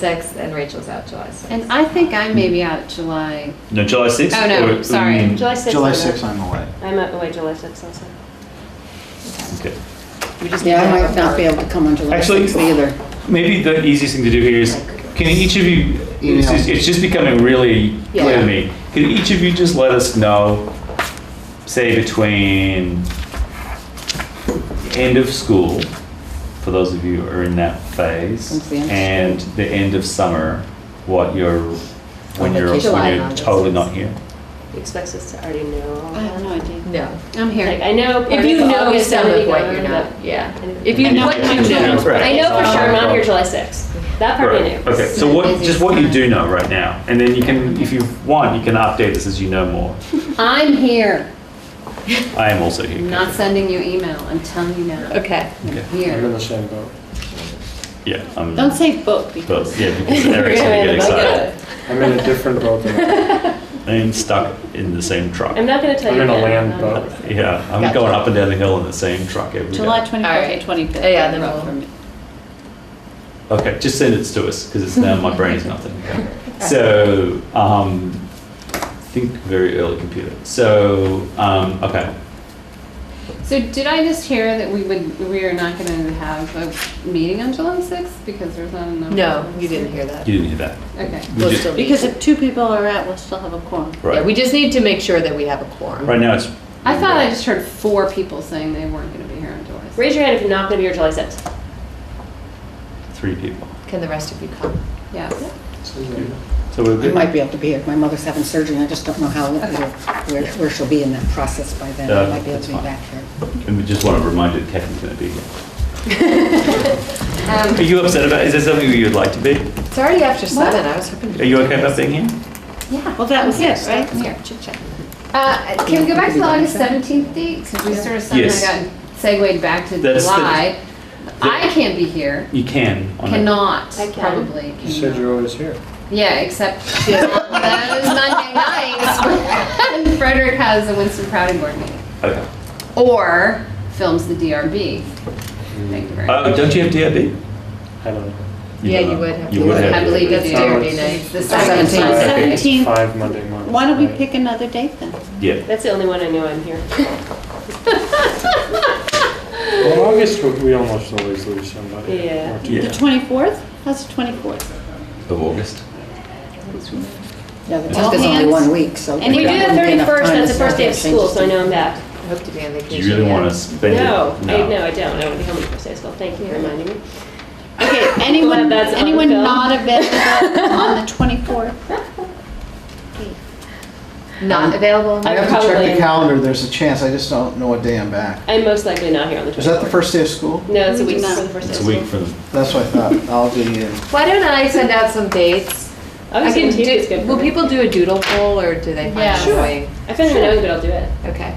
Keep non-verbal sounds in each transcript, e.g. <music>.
sixth, and Rachel's out July sixth. And I think I may be out July. No, July 6th? Oh, no, Or- sorry. mm, July 6th. July I'm out. 6th, I'm away. I'm out, wait, July 6th also. Okay. We just need Yeah, to I have might a not be vote. able to come on July Actually- 6th either. Maybe the easiest thing to do here is, can each of you, it's Email. just, it's just becoming really clear Yeah. to me. Can each of you just let us know, say between end of school, for those of you who are in that Since phase, the end of and the end of summer, what you're, when On you're, vacation. July when and you're August. totally not here? He expects us to already know. all I have no that. idea. No. I'm Like, here. I know. part If you of know August, some I'm of gonna what be you're gone, not, but- yeah. And- If you know what you know. Right. I know for sure I'm not here Right. July 6th. That part I knew. Right, okay, so Yeah, what, busy just what you time. do know right now, and then you can, if you want, you can update this as you know more. I'm here. I am also here. I'm not sending you email until you know. Okay. Okay. I'm here. same boat. Yeah, I'm. Don't say book because. But, yeah, because Eric's gonna get excited. I'm in a different boat than I'm stuck in the same truck. I'm not gonna tell I'm you. in a again. land Um, boat. Yeah, I'm Gotcha. going up and down the hill in the same truck every day. July 24th Alright. and 25th. Yeah, then rough we'll- for me. Okay, just send it to us because it's now my brain's not thinking. So, um, think very early computer. So, um, okay. So did I just hear that we would, we are not going to have a meeting on July 6th because there's not enough? No, you didn't hear that. You didn't hear that. Okay. We We'll just- still be- Because if two people are out, we'll still have a quorum. Yeah, we Right. just need to make sure that we have a quorum. Right now it's. I thought I just heard four people saying they weren't going to be here on July 6th. Raise your hand if you're not gonna be here July 6th. Three people. Can the rest of you come? Yes. boat. So we're I good. might be able to be here. My mother's having surgery and I just don't know how, where, where she'll be in that process by then. Uh, I might be able that's to be fine. back here. And we just want to remind you that Catherine's going to be here. <laughs> Are you upset about, is there something you'd like to be? It's already after What? seven, I was hoping. to- Are you okay about being here? Yeah. Well, that was it, right? I'm here. Chit chat. Uh, Can we go back to the August 17th date? Because we sort of Yes. somehow got segued back to That's the- July. I can't be here. You can. on a- Cannot, I can. probably. You said cannot. you're always here. Yeah, except <laughs> she has all those Monday nights. And <laughs> Frederick has a Winston Crowdy board meeting. Okay. Or films the DRB. Thank you very much. Oh, don't you have DIB? I don't know. Yeah, you would have. You to. would have. I believe That's it's Yeah. Derby Yeah. night. The Seventeenth. second Five- Sunday. Seventeenth. Seventeen. Five Monday mornings. Why don't we right? pick another date then? Yeah. That's the only one I knew I'm here. Well, in August, we- we almost always lose somebody. Yeah. Or two. The Yeah. 24th? How's the 24th? Of August. Yeah, the All 10th is only hands. one week, so. And we do the wouldn't be enough 31st, time that's the first to start day of changes school, so I know I'm back. I Hope to be on Do vacation. you really yeah. want to spend it? No, I, no, I don't. I don't want to be home on the first day of school. Thank you for reminding me. Okay, Anyone, that's on anyone film. not available on the 24th? Not available? I I'm have to check probably- the calendar, there's a chance, I just don't know what day I'm back. I'm most likely not here on the 24th. Is that the first day of school? No, it's a week No. before the first day of It's a school. week from. That's what I thought, I'll be in. Why don't I send out some dates? I was I can gonna take do- it's good for Will me. people do a doodle poll or do they Yeah. find a Sure. way? I don't even know, but I'll do it. Okay.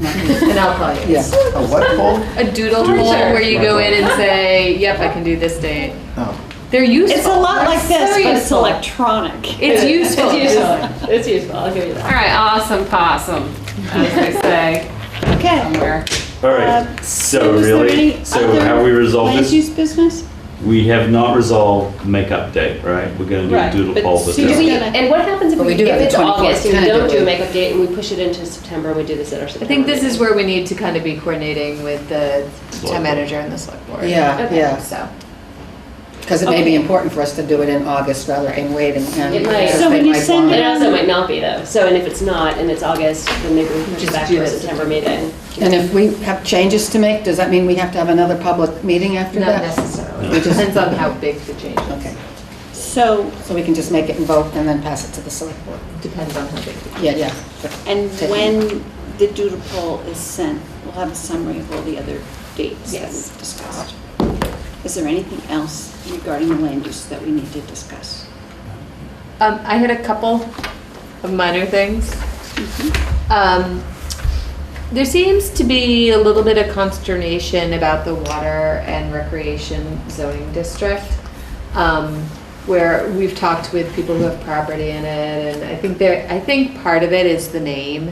And I'll call you. <laughs> Yeah. A what poll? A doodle Doodle poll poll. where you go in and say, yep, I can do this date. Oh. They're useful. It's a lot They're like this, so but it's useful. electronic. It's useful. It's useful. <laughs> It's useful. I'll give you All that. right, awesome possum, as they say Okay. somewhere. All Um, right. So is there really, any so other have we resolved Land this? use business? We have not resolved makeup date, right? We're going to Right, do a doodle but poll. but Susan- Do there- we, and what happens if But we, we do if have the it's 24th August and we tentative. don't do a makeup date and we push it into September and we do this at our I September? think this is meeting? where we need to kind of be coordinating with the Select town board. manager and the select board. Yeah, Okay. yeah, So, because it may be important for us to do it in August rather than wait and. and- It might. because So they when might send want It it. also might not be though. So, and if it's not and it's August, then maybe we push it Just back do to our this. September meeting. And if we have changes to make, does that mean we have to have another public meeting after not that? necessarily. It depends on how big the change is. Okay. So, so we can just make it and vote and then pass it to the select board? Depends on how big. the- Yeah, yeah. And Taking- when the doodle poll is sent, we'll have a summary of all the other dates that Yes. we've discussed. Is there anything else regarding the land use that we need to discuss? Um, I had a couple of minor things. Um, there seems to be a little bit of consternation about the water and recreation zoning district, um, where we've talked with people who have property in it, and I think there, I think part of it is the name,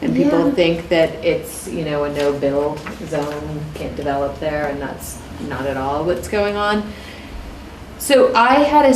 and people Yeah. think that it's, you know, a no-bill zone, can't develop there, and that's not at all what's going on. So I had a